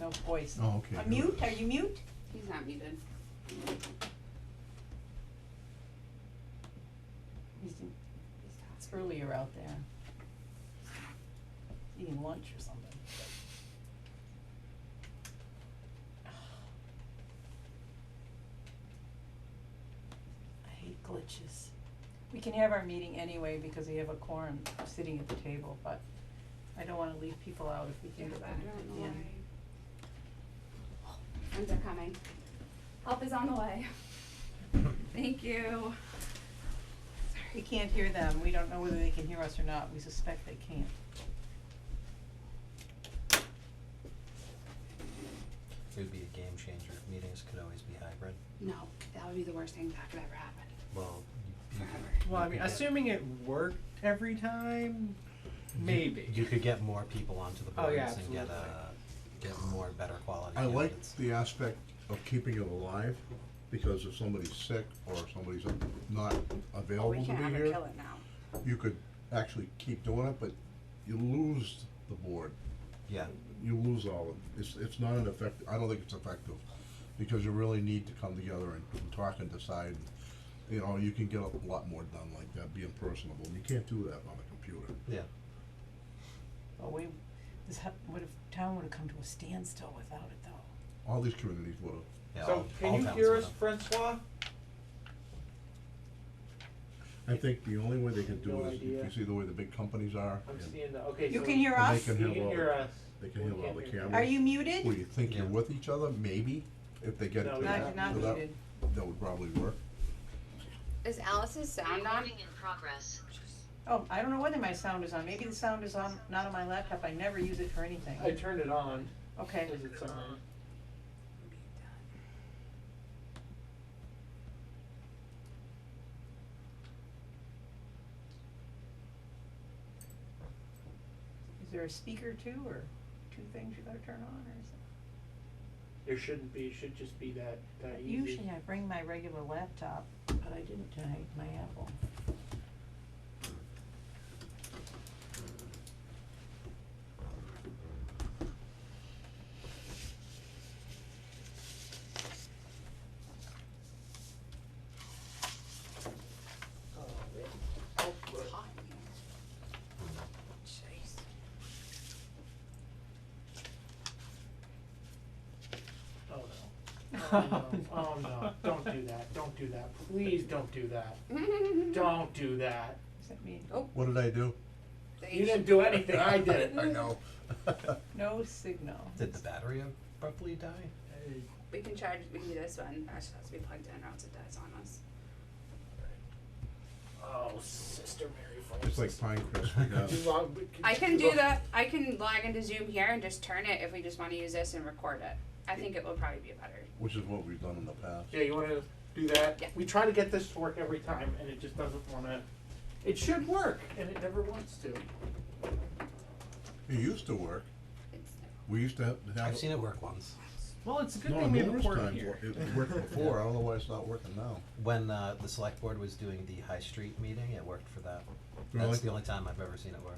no voice. Oh, okay. A mute, are you mute? He's not muted. He's, it's earlier out there. Eating lunch or something. I hate glitches. We can have our meeting anyway because we have a quorum sitting at the table, but I don't wanna leave people out if we Yeah, can get but them I don't at the know end. why. Friends are coming. Help is on the way. Thank you. We can't hear them, we don't know whether they can hear us or not, we suspect they can't. It would be a game changer if meetings could always be hybrid. No, that would be the worst thing that could ever happen. Well, you, you could. Forever. Well, I you mean, could get- assuming it worked every time, you- maybe. You could get more people onto the Oh, yeah, boards and get a, get more better quality I like candidates. the aspect of keeping it alive, because if somebody's sick or somebody's not Oh, we available to can't be ever here, kill it now. you could actually keep doing it, but you lose the board. Yeah, You lose all of it. It's, it's not an effect, I don't think it's effective, because you really need to come together and talk and decide. You know, you can get a lot more done like that, being personable. You can't do that on a computer. yeah. Well, we, this hap- would have, town would have come to a standstill without it though. All these communities would have Yeah, So all- can all you towns hear would us, have- Francois? I think the only way they can do No it is if idea. you see the way the big companies are. I'm and seeing the okay. You so can hear and us? They can you can handle hear all, us. they can We handle all the can't hear you. Are cameras. you muted? Well, you think you're Yeah. with each other, maybe, if they get to No, you're No, that, you're not so that, muted. that would probably work. Is Alice's sound on? Recording in progress. Oh, I don't know whether my sound is on, maybe the sound is on, not on my laptop, I never use it for anything. I turned it on. Okay, Is it on? is there a speaker too, or two things you gotta turn on, or something? There shouldn't be. It should just be that that easy. Usually I bring my regular laptop, but I didn't tonight, my Apple. Hot in here. Jeez. Oh no. Oh no. Oh no. Don't do that. Don't do that. Please don't do that. Don't do that. Does that mean, What did I do? They You should- didn't do anything. I did it. I know. no signal? Did the battery abruptly die? We can charge, we can do this one, that just has to be plugged in or else it dies on us. Oh, Sister Mary Oh, Frances. It's like Pinecrest right now. Could you log- could I you can do log- that, I can log into Zoom here and just turn it if we just wanna use this and record it. I think it will probably be better. Which is what we've done in the past. Yeah, you wanna do that? Yeah. We try to get this to work every time and it just doesn't wanna, it should work and it never wants to. It used to work. It's, We used to have. have- I've seen it work once. Well, it's a good No, thing we have a numerous port times. here. It it worked before. I don't know why it's not working now. When uh, the select board was doing the High Street meeting, it worked for that. Really? That's the only time I've ever seen it work.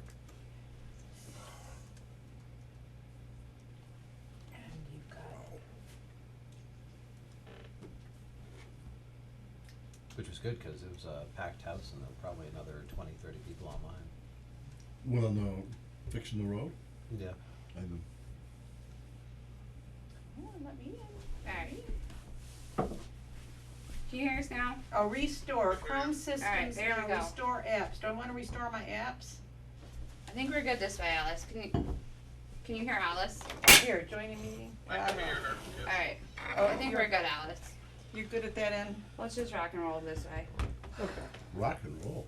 And you've got, Which was good, cause it was a packed house and there were probably another twenty, thirty people online. Well, no, fixing the road? Yeah. I know. oh, let me in. Alright. Can you hear us now? oh, restore, Chrome systems there we now, go. restore apps, do I wanna restore my apps? I think we're good this way, Alice. Can you, can you hear Alice? Here, join a meeting, I don't know. Alright, Oh, I think you're- we're good, Alice. You're good at that end? Let's just rock and roll this way. Rock and roll.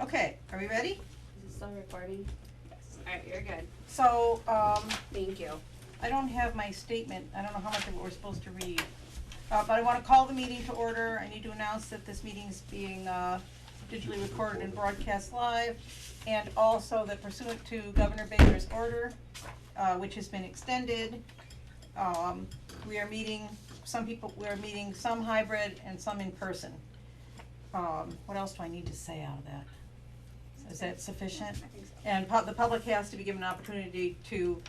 Okay, are we ready? Is it still recording? Yes. Alright, you're good. So, um, Thank you. I don't have my statement, I don't know how much of it we're supposed to read. Uh, but I wanna call the meeting to order, I need to announce that this meeting is being, uh, digitally recorded and broadcast live. And also that pursuant to Governor Baker's order, uh, which has been extended, um, we are meeting, some people, we're meeting some hybrid and some in person. Um, what else do I need to say out of that? Is that sufficient? I think so. And pub- the public has to be given an opportunity to